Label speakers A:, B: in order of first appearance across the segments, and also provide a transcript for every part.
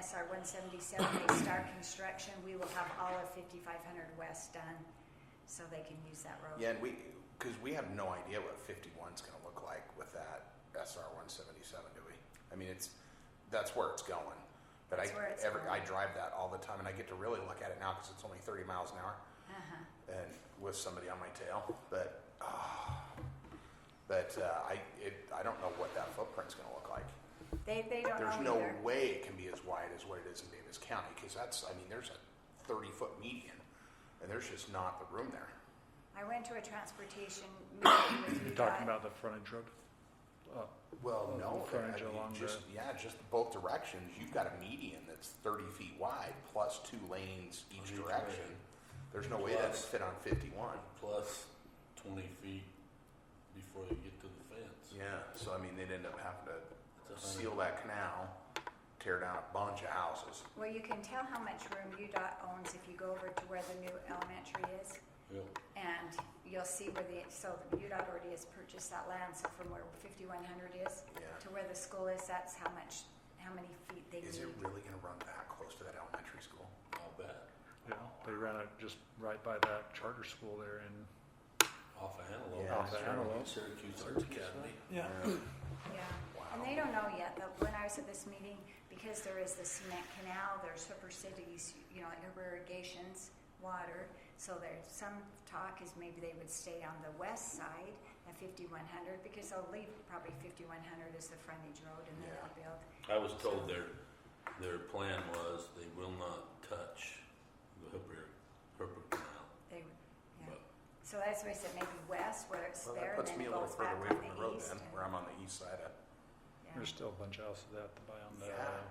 A: SR one seventy-seven, they start construction, we will have all of fifty-five hundred west done, so they can use that road.
B: Yeah, and we, because we have no idea what 51's going to look like with that SR 177, do we? I mean, it's, that's where it's going. But I,
A: That's where it's
B: every, I
A: going.
B: drive that all the time and I get to really look at it now because it's only 30 miles an hour
A: Uh-huh.
B: and with somebody on my tail. But, ah, but uh, I, it, I don't know what that footprint's going to look like.
A: They, they don't
B: There's
A: know
B: no
A: either.
B: way it can be as wide as what it is in Davis County because that's, I mean, there's a 30 foot median and there's just not the room there.
A: I went to a transportation meeting with
C: You're
A: UDOT.
C: talking about the frontage road? Uh,
B: Well,
C: Well,
B: no, but
C: the
B: I
C: frontage
B: mean,
C: along
B: just, yeah, just both directions, you've got a median that's thirty feet wide, plus two lanes
D: On
B: each
D: each way.
B: direction. There's no way that'd
D: Plus-
B: fit on fifty-one.
D: plus twenty feet before you get to the fence.
B: Yeah, so I mean, they'd end up having to
D: It's a hundred-
B: seal that canal, tear down a bunch of houses.
A: Well, you can tell how much room UDOT owns if you go over to where the new elementary is.
D: Yeah,
A: And you'll see where the, so the UDOT already has purchased that land, so from where fifty-one hundred is
B: Yeah,
A: to where the school is, that's how much, how many feet they
B: is it
A: need.
B: really gonna run that close to that elementary school?
D: I'll bet.
C: Yeah, they ran it just right by that charter school there and
D: Off of Antelope.
B: Yeah, Off
C: of Antelope.
D: Syracuse Arts Academy.
C: Yeah.
A: Yeah, and
B: Wow,
A: they don't know yet, but when I was at this meeting, because there is the cement canal, there's Hooper Cities, you know, like Hooper Irrigation's water. So there's some talk is maybe they would stay on the west side at fifty-one hundred, because they'll leave probably fifty-one hundred as the frontage road and then
B: Yeah.
A: they'll build.
D: I was told their, their plan was they will not touch the Hooper, Hooper Canal.
A: They, would- yeah,
D: But
A: so that's why I said maybe west where it's
B: well,
A: there
B: that
A: and then
B: puts me a little
A: goes
B: further
A: back
B: away
A: on
B: from the
A: the
B: road
A: east.
B: then,
A: and-
B: where I'm on the east side of,
A: yeah.
C: there's still a bunch of houses out to buy on the.
B: Yeah,
C: uh,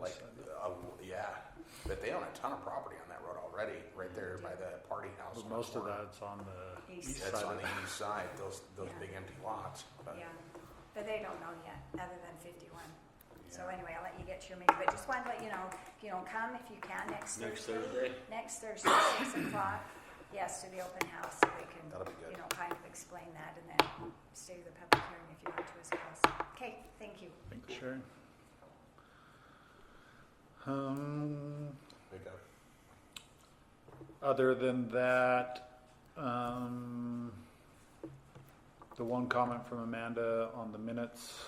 B: like,
C: east side.
B: uh, yeah, but they own a ton of property on that road already, right there by the party house.
C: But
B: on the
C: most of
B: corner.
C: that's on the
A: East.
C: east side.
B: That's on
C: of
B: the
C: it.
B: east side, those, those
A: Yeah.
B: big empty lots. but-
A: Yeah, but they don't know yet, other than fifty-one. So
B: Yeah.
A: anyway, I'll let you get to your meeting, but just wanted to let you know, you know, come if you can next Thursday.
D: Next Thursday?
A: Next Thursday, six o'clock, yes, to the open house, so they
D: Oh,
A: can,
B: That'll be good.
A: you know, kind of explain that and then stay to the public hearing if you want to as well. So, Okay, thank you.
C: Thanks, Sharon. Um,
B: Big up.
C: Other than that, um, the one comment from Amanda on the minutes.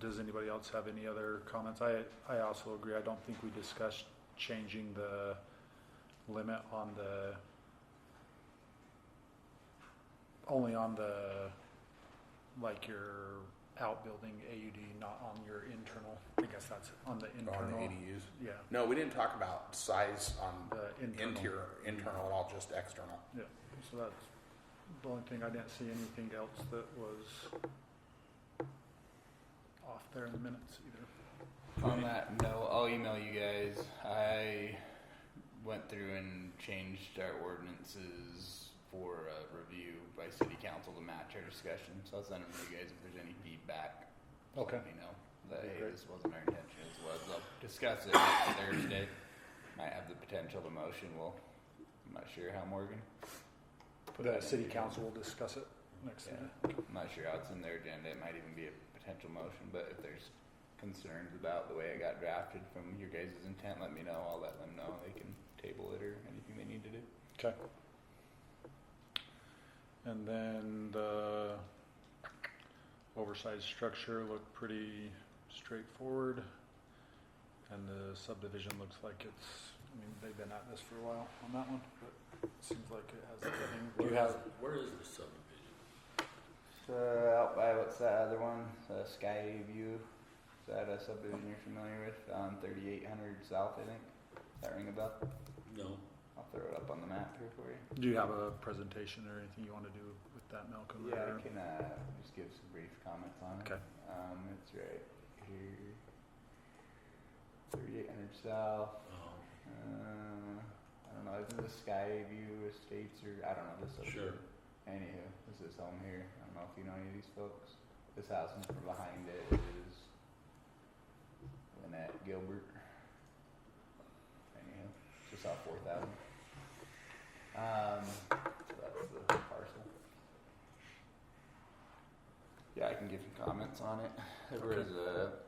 C: Does anybody else have any other comments? I, I also agree. I don't think we discussed changing the limit on the, only on the, like your outbuilding AUD, not on your internal. I guess that's on the
B: On the
C: internal.
B: ADUs?
C: Yeah,
B: No, we didn't talk about size on
C: the uh, internal.
B: interior, internal at all, just external.
C: Yeah, so that's the only thing, I didn't see anything else that was off there in the minutes either.
E: On that note, I'll email you guys. I went through and changed our ordinances for a review by city council to match our discussion. So I'll send them to you guys if there's any feedback. Just Let
C: Okay.
E: me know that
C: Okay,
E: hey,
C: great.
E: this wasn't our intention. This was. I'll discuss it next Thursday. Might have the potential to motion. Well, I'm not sure how Morgan. Put that
C: The
E: in
C: city
E: the-
C: council will discuss it next
E: Yeah.
C: meeting.
E: I'm not sure how it's in their agenda. It might even be a potential motion, but if there's concerns about the way it got drafted from your guys' intent, let me know. I'll let them know. They can table it or anything they need to do.
C: Okay. And then the oversized structure looked pretty straightforward. And the subdivision looks like it's, I mean, they've been at this for a while on that one, but it seems like it has everything. Do you
D: where is,
C: have?
D: where is the subdivision?
E: So out by what's that other one? The Sky View. Is that a subdivision you're familiar with? On 3800 South, I think. Does that ring a bell?
D: No,
E: I'll throw it up on the map here for you.
C: Do you have a presentation or anything you want to do with that, Malcolm?
E: Yeah,
C: or-
E: I can uh, just give some brief comments on it.
C: Okay.
E: Um, it's right here. 3800 South.
D: um,
E: Uh, I don't know. Isn't this Skyview Estates or I don't know this. up
D: sure.
E: here. Anywho, this is home here. I don't know if you know any of these folks. This house in from behind it is Lynette Gilbert. Anywho, just off Fourth Avenue. Um, so that's the parcel. Yeah, I can give you comments on it. There was a